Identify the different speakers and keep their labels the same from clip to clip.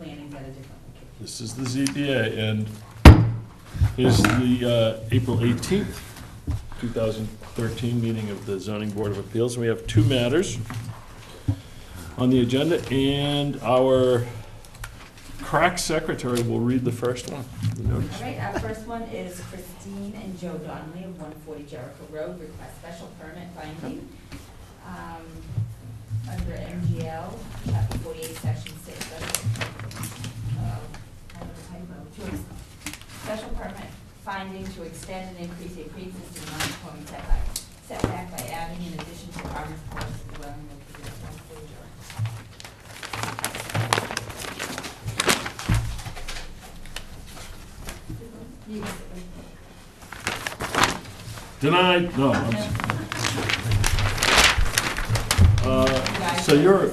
Speaker 1: a different location.
Speaker 2: This is the ZBA, and is the uh, April 18th, 2013 meeting of the Zoning Board of Appeals. We have two matters on the agenda, and our crack secretary will read the first one. The notice.
Speaker 1: All right, our first one is Christine and Joe Donnelly of one forty Jericho Road, request special permit finding, um, under MGL, chapter forty-eight, section six, that's, uh, I don't know, typo, to- special permit finding to extend and increase a pre-existing non-conforming setback, setback by adding in addition to farmer's porch dwelling located at one forty Jericho. You can sit right there.
Speaker 2: Denied, no, I'm s- Uh, So you're,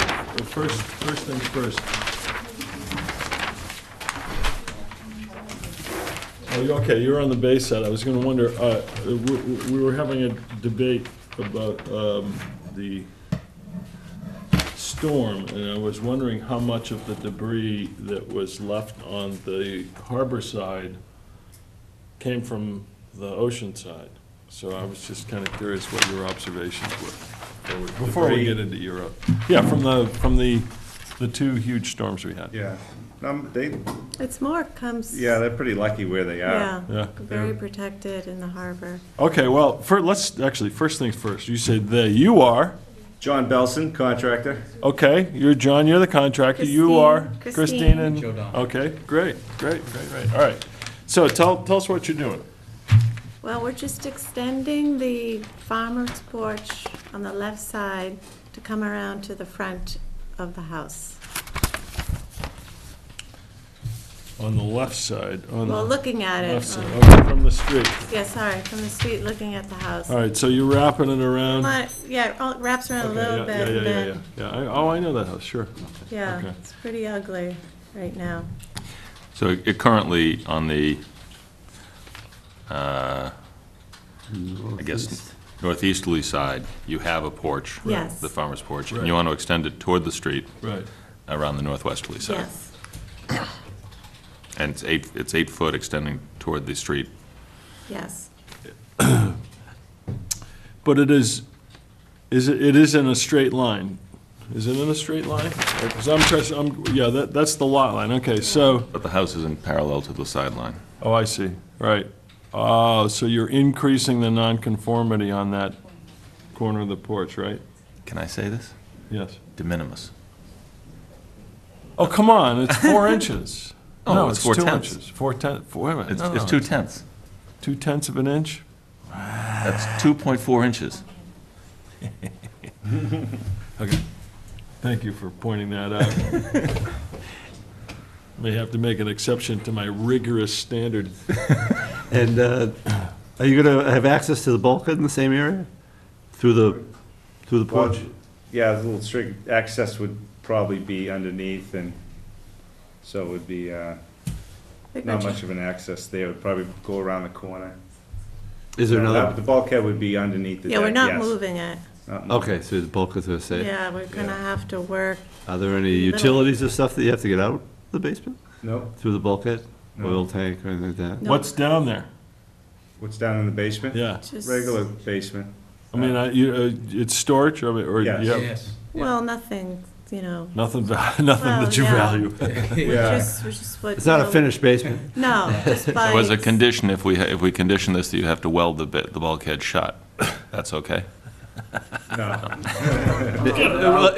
Speaker 2: Well, first, first things first. Oh, you okay, you're on the base side. I was gonna wonder, uh, we, we- we were having a debate about, um, the storm, and I was wondering how much of the debris that was left on the harbor side came from the ocean side. So I was just kinda curious what your observations were, or before we
Speaker 3: Debris.
Speaker 2: get into Europe. Yeah, from the, from the, the two huge storms we had.
Speaker 3: Yeah, um, they,
Speaker 4: It's more comes.
Speaker 3: yeah, they're pretty lucky where they
Speaker 4: Yeah.
Speaker 3: are.
Speaker 2: Yeah.
Speaker 4: Very
Speaker 3: They're-
Speaker 4: protected in the harbor.
Speaker 2: Okay, well, fir, let's, actually, first things first, you say they, you are,
Speaker 3: John Belson, contractor.
Speaker 2: okay, you're John, you're the contractor, you are
Speaker 4: Christine,
Speaker 2: Christine
Speaker 4: Christine.
Speaker 2: and.
Speaker 5: Joe Don.
Speaker 2: Okay, great, great, great, great, all right. So tell, tell us what you're doing.
Speaker 4: Well, we're just extending the farmer's porch on the left side to come around to the front of the house.
Speaker 2: On the left side, on
Speaker 4: Well,
Speaker 2: the
Speaker 4: looking at
Speaker 2: left
Speaker 4: it.
Speaker 2: side,
Speaker 4: um,
Speaker 2: okay, from the street.
Speaker 4: Yeah, sorry, from the street, looking at the house.
Speaker 2: All right, so you're wrapping it around.
Speaker 4: But, yeah, it all wraps around a
Speaker 2: Okay,
Speaker 4: little
Speaker 2: yeah, yeah,
Speaker 4: bit, and
Speaker 2: yeah, yeah,
Speaker 4: then,
Speaker 2: Yeah, I, oh, I know that house, sure.
Speaker 4: yeah,
Speaker 2: Okay.
Speaker 4: it's pretty ugly right now.
Speaker 6: So it currently on the, uh, I guess, northeasterly side, you have a porch.
Speaker 4: Yes.
Speaker 6: The farmer's porch, and
Speaker 2: Right.
Speaker 6: you want to extend it toward the street
Speaker 2: Right.
Speaker 6: around the northwesterly side.
Speaker 4: Yes,
Speaker 6: And it's eight, it's eight foot extending toward the street.
Speaker 4: yes.
Speaker 2: But it is, is, it it is in a straight line. Is it in a straight line? Because I'm, press- I'm, yeah, that, that's the lot line, okay, so,
Speaker 6: But the house isn't parallel to the sideline.
Speaker 2: oh, I see, right. Oh, so you're increasing the nonconformity on that corner of the porch, right?
Speaker 6: Can I say this?
Speaker 2: Yes.
Speaker 6: De minimis.
Speaker 2: Oh, come on, it's four inches.
Speaker 6: Oh,
Speaker 2: No,
Speaker 6: it's four
Speaker 2: two
Speaker 6: tenths.
Speaker 2: inches. Four ten, four, wait a minute,
Speaker 6: It's,
Speaker 2: no,
Speaker 6: it's
Speaker 4: Oh.
Speaker 2: no,
Speaker 6: two tenths.
Speaker 2: Two tenths of an inch?
Speaker 6: That's 2.4 inches.
Speaker 2: Okay. Thank you for pointing that out. May have to make an exception to my rigorous standard.
Speaker 7: And uh, are you going to have access to the bulkhead in the same area? Through the, through the porch?
Speaker 3: Yeah, the little strict, access would probably be underneath and so it would be, uh,
Speaker 4: Pretty
Speaker 3: not
Speaker 4: much-
Speaker 3: much of an access there. It'd probably go around the corner.
Speaker 7: Is there
Speaker 3: No, that-
Speaker 7: another?
Speaker 3: The bulkhead would be underneath the deck,
Speaker 4: Yeah, we're not
Speaker 3: yes.
Speaker 4: moving it.
Speaker 3: Not moving.
Speaker 7: Okay, so the bulkhead's going to stay.
Speaker 4: Yeah, we're gonna
Speaker 3: Yeah.
Speaker 4: have to work
Speaker 7: Are there any utilities or stuff that you have to get out of the basement?
Speaker 3: No,
Speaker 7: Through the bulkhead?
Speaker 3: No.
Speaker 7: Oil tank or anything like that?
Speaker 4: No.
Speaker 2: What's down there?
Speaker 3: what's down in the basement?
Speaker 2: Yeah,
Speaker 4: just.
Speaker 3: Regular basement.
Speaker 2: I mean, I, you, uh, it's storage, I mean, or,
Speaker 3: Yes.
Speaker 2: yeah,
Speaker 4: Well, nothing, you know,
Speaker 2: nothing, va- nothing that you
Speaker 4: Well, yeah.
Speaker 2: value.
Speaker 3: Yeah,
Speaker 4: just, which is what.
Speaker 7: It's not a
Speaker 4: you know,
Speaker 7: finished basement.
Speaker 4: No, just by.
Speaker 6: There was a condition, if we, ha- if we condition this, that you have to weld the bit, the bulkhead shut. That's okay?
Speaker 3: no.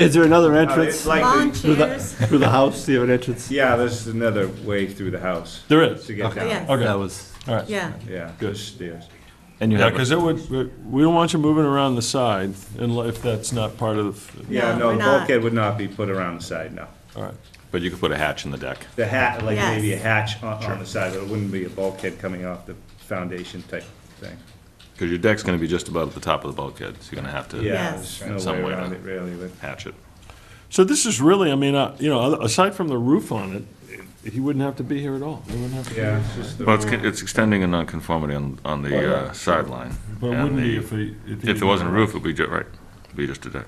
Speaker 7: Is there another
Speaker 3: Uh,
Speaker 7: entrance
Speaker 3: It's
Speaker 4: Lawn
Speaker 3: likely,
Speaker 7: through the,
Speaker 4: chairs.
Speaker 7: through the house? Do you have an entrance?
Speaker 3: yeah, there's another way through the house
Speaker 2: There is,
Speaker 3: to get
Speaker 7: Okay.
Speaker 3: down.
Speaker 4: Yes.
Speaker 2: Okay.
Speaker 7: That was,
Speaker 2: all right.
Speaker 4: Yeah,
Speaker 3: Yeah,
Speaker 2: Good.
Speaker 3: there's stairs.
Speaker 6: And you
Speaker 2: Yeah,
Speaker 6: have,
Speaker 2: because
Speaker 6: a-
Speaker 2: it would, we- we don't want you moving around the side, unless, if that's not part of,
Speaker 3: Yeah,
Speaker 4: No,
Speaker 3: no,
Speaker 4: we're
Speaker 3: the
Speaker 4: not.
Speaker 3: bulkhead would not be put around the side, no.
Speaker 2: all right.
Speaker 6: but you could put a hatch in the deck.
Speaker 3: The hat, like
Speaker 4: Yes.
Speaker 3: maybe a hatch on, on the side, but it wouldn't be a bulkhead coming off the foundation type thing.
Speaker 6: Because your deck's gonna be just about at the top of the bulkhead, so you're gonna have to
Speaker 3: Yeah,
Speaker 4: Yes.
Speaker 3: there's no
Speaker 6: Some
Speaker 3: way
Speaker 6: way
Speaker 3: around
Speaker 6: to-
Speaker 3: it really, but
Speaker 6: hatch it.
Speaker 2: So this is really, I mean, uh, you know, aside from the roof on it, he wouldn't have to be here at all. He wouldn't have to be
Speaker 3: yeah,
Speaker 2: here.
Speaker 3: it's just the.
Speaker 6: Well, it's, it's extending a nonconformity on, on the uh, sideline.
Speaker 2: But it
Speaker 6: And
Speaker 2: wouldn't be
Speaker 6: the-
Speaker 2: if he.
Speaker 6: If there wasn't a roof, it'd be ju, right, it'd be just a deck.